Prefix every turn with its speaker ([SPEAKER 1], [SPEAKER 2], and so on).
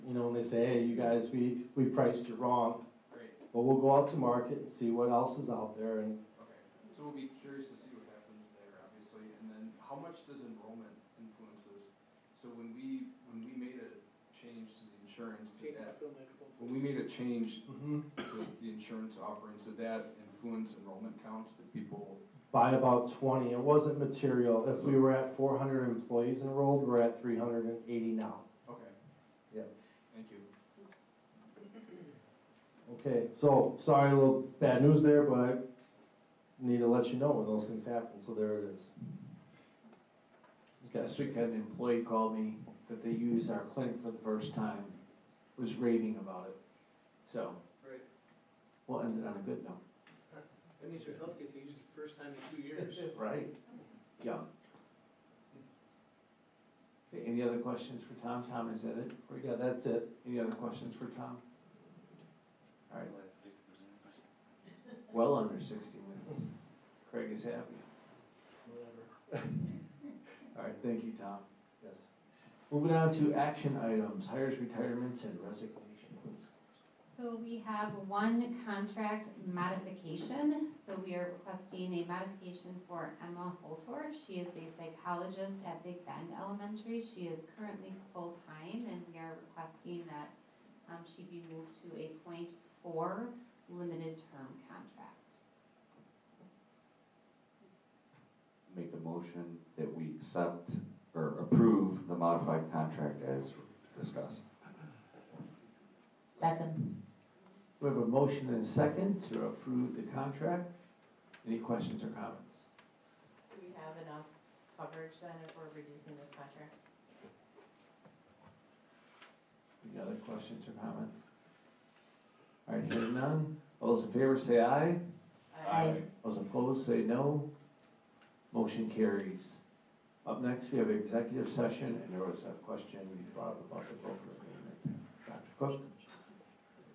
[SPEAKER 1] they say, hey, you guys, we, we priced you wrong.
[SPEAKER 2] Great,
[SPEAKER 1] But we'll go out to market and see what else is out there and
[SPEAKER 2] okay. So we'll be curious to see what happens there, obviously, and then how much does enrollment influence this? So when we, when we made a change to the insurance to that, when we made a change
[SPEAKER 1] mhm,
[SPEAKER 2] to the insurance offering, so that influence enrollment counts that people,
[SPEAKER 1] buy about twenty. It wasn't material. If we were at four hundred employees enrolled, we're at three hundred and eighty now.
[SPEAKER 2] okay,
[SPEAKER 1] Yep.
[SPEAKER 2] thank you.
[SPEAKER 1] Okay, so, sorry, a little bad news there, but I need to let you know when those things happen, so there it is.
[SPEAKER 3] Last week, I had an employee call me that they used our clinic for the first time, was raving about it. So,
[SPEAKER 4] Right,
[SPEAKER 3] we'll end it on a good note.
[SPEAKER 4] that means you're healthy if you use it the first time in two years.
[SPEAKER 3] Right. Yeah. Okay, any other questions for Tom? Tom, is that it? for you?
[SPEAKER 1] Yeah, that's it.
[SPEAKER 3] Any other questions for Tom? All right. Well under sixty minutes. Craig is happy.
[SPEAKER 4] Whatever.
[SPEAKER 3] All right, thank you, Tom.
[SPEAKER 1] Yes.
[SPEAKER 3] Moving on to action items, hires, retirements, and resignations.
[SPEAKER 5] So we have one contract modification, so we are requesting a modification for Emma Holtor. She is a psychologist at Big Bend Elementary. She is currently full-time, and we are requesting that um, she be moved to a point four limited-term contract.
[SPEAKER 6] Make a motion that we accept or approve the modified contract as discussed.
[SPEAKER 7] Second.
[SPEAKER 3] We have a motion and a second to approve the contract. Any questions or comments?
[SPEAKER 7] Do we have enough coverage then if we're reducing this contract?
[SPEAKER 3] Any other questions or comments? All right, hearing none. All those in favor say aye. Those opposed say no. Motion carries. Up next, we have executive session, and there was a question we brought up about the broker agreement. Dr. Cook?